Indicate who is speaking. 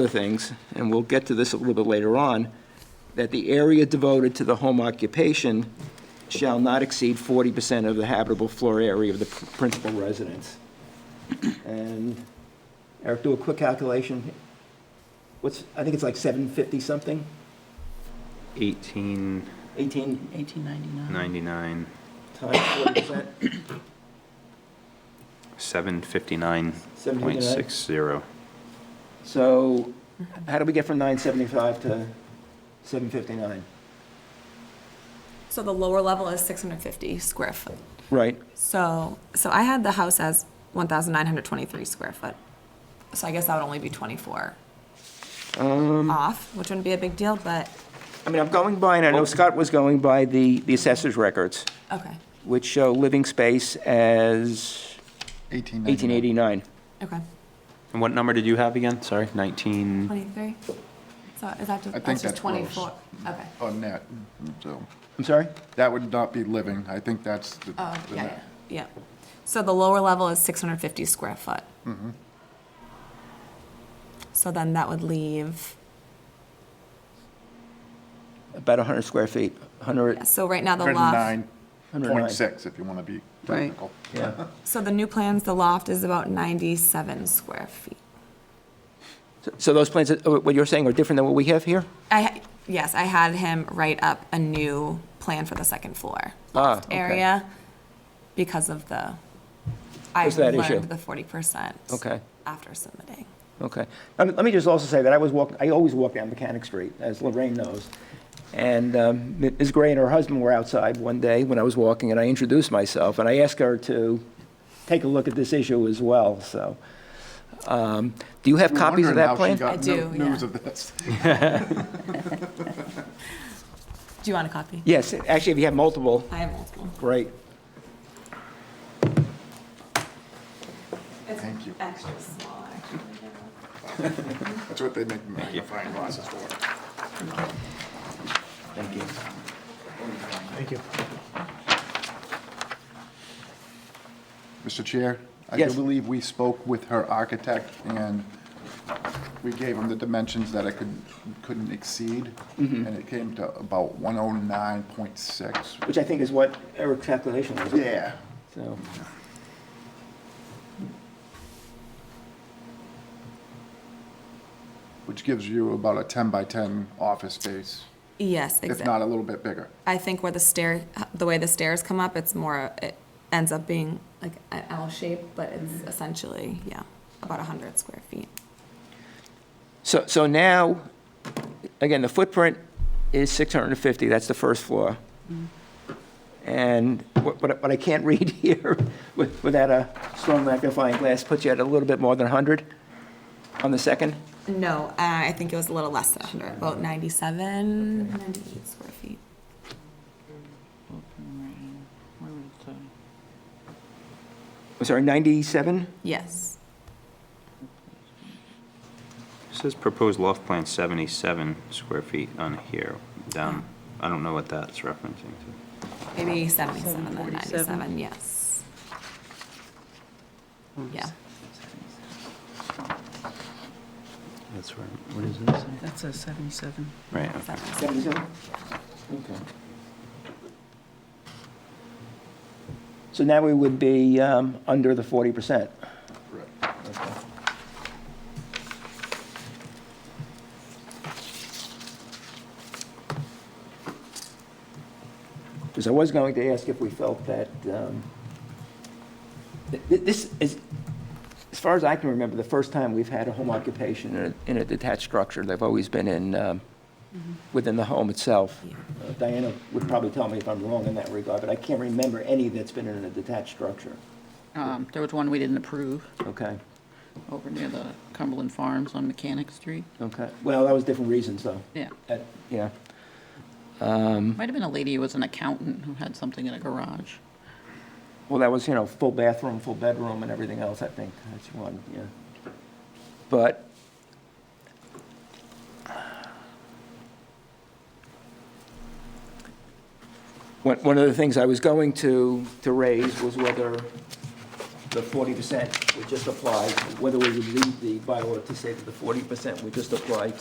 Speaker 1: other things, and we'll get to this a little bit later on, that the area devoted to the home occupation shall not exceed 40% of the habitable floor area of the pr- principal residence. And Eric, do a quick calculation. What's, I think it's like 750 something,
Speaker 2: 1899.
Speaker 1: 18
Speaker 3: 1899.
Speaker 1: times 40%?
Speaker 2: 759.60.
Speaker 1: So how do we get from 975 to 759?
Speaker 4: So the lower level is 650 square foot.
Speaker 1: Right.
Speaker 4: So, so I had the house as 1,923 square foot. So I guess that would only be 24 Um, off, which wouldn't be a big deal, but,
Speaker 1: I mean, I'm going by, and I know Scott was going by the the assessor's records,
Speaker 4: okay,
Speaker 1: which show living space as 1889.
Speaker 5: 1899.
Speaker 4: okay.
Speaker 2: And what number did you have again? Sorry, 19,
Speaker 4: 23? So is that just,
Speaker 5: think
Speaker 4: that's just
Speaker 5: that's gross.
Speaker 4: 24? Okay.
Speaker 5: On net, so
Speaker 1: I'm sorry?
Speaker 5: that would not be living. I think that's the.
Speaker 4: Oh,
Speaker 5: the
Speaker 4: yeah, yeah,
Speaker 5: net.
Speaker 4: yeah. So the lower level is 650 square foot. So then that would leave,
Speaker 1: About 100 square feet, 100,
Speaker 4: yeah, so right now the loft.
Speaker 5: 109.6 if you want to be technical.
Speaker 1: yeah.
Speaker 4: So the new plans, the loft is about 97 square feet.
Speaker 1: So- So those plans, uh, what you're saying are different than what we have here?
Speaker 4: I, ha- yes, I had him write up a new plan for the second floor
Speaker 1: Ah,
Speaker 4: loft
Speaker 1: okay.
Speaker 4: area because of the, I
Speaker 1: What's that issue?
Speaker 4: learned the 40%
Speaker 1: Okay.
Speaker 4: after submitting.
Speaker 1: Okay. Let me- let me just also say that I was walking, I always walk down Mechanic Street, as Lorraine knows. And um, Ms. Gray and her husband were outside one day when I was walking, and I introduced myself, and I asked her to take a look at this issue as well, so. um, Do you have
Speaker 5: We're
Speaker 1: copies of
Speaker 5: wondering how
Speaker 1: that plan?
Speaker 5: she got
Speaker 4: I
Speaker 5: no-
Speaker 4: do,
Speaker 5: News
Speaker 4: yeah.
Speaker 5: of this.
Speaker 4: Do you want a copy?
Speaker 1: Yes, actually, if you have multiple,
Speaker 4: I have multiple.
Speaker 1: great.
Speaker 5: Thank you.
Speaker 4: Extra small, actually.
Speaker 5: That's what they make magnifying glasses for.
Speaker 1: Thank you.
Speaker 5: Mr. Chair? I
Speaker 1: Yes.
Speaker 5: do believe we spoke with her architect, and we gave him the dimensions that it could, couldn't exceed,
Speaker 1: Mm-hmm.
Speaker 5: and it came to about 109.6.
Speaker 1: Which I think is what Eric's calculation was.
Speaker 5: Yeah.
Speaker 1: So,
Speaker 5: Which gives you about a 10 by 10 office space,
Speaker 4: Yes,
Speaker 5: if not
Speaker 1: uh,
Speaker 4: exactly.
Speaker 5: a little bit bigger.
Speaker 4: I think where the stair, the way the stairs come up, it's more, it ends up being like an L shape, but
Speaker 1: Mm-hmm.
Speaker 4: it's essentially, yeah, about 100 square feet.
Speaker 1: so so now, again, the footprint is 650, that's the first floor. And what what I what I can't read here with- without a strong magnifying glass puts you at a little bit more than 100 on the second?
Speaker 4: No, uh, I think it was a little less than 100, about 97, 98 square feet.
Speaker 1: I'm sorry, 97?
Speaker 4: Yes.
Speaker 2: It says proposed loft plan 77 square feet on here, down. I don't know what that's referencing to.
Speaker 4: Maybe 77, then
Speaker 3: 47.
Speaker 4: 97, yes. Yeah.
Speaker 2: That's right. What is this?
Speaker 3: That's a 77.
Speaker 2: Right, okay.
Speaker 4: 77.
Speaker 1: 77? Okay. So now we would be um, under the 40%.
Speaker 5: Right.
Speaker 1: Because I was going to ask if we felt that, um, th- th- this is, as far as I can remember, the first time we've had a home occupation in a- in a detached structure. They've always been in, um, within the home itself. Uh, Diana would probably tell me if I'm wrong in that regard, but I can't remember any that's been in a detached structure.
Speaker 6: Um, There was one we didn't approve
Speaker 1: Okay,
Speaker 6: over near the Cumberland Farms on Mechanic Street.
Speaker 1: okay. Well, that was different reasons, though.
Speaker 6: Yeah.
Speaker 1: That- Yeah.
Speaker 6: Might have been a lady who was an accountant who had something in a garage.
Speaker 1: Well, that was, you know, full bathroom, full bedroom, and everything else, I think, that's one, yeah. But one, one of the things I was going to, to raise was whether the forty percent would just apply, whether we would leave the bylaw to say that the forty percent would just apply to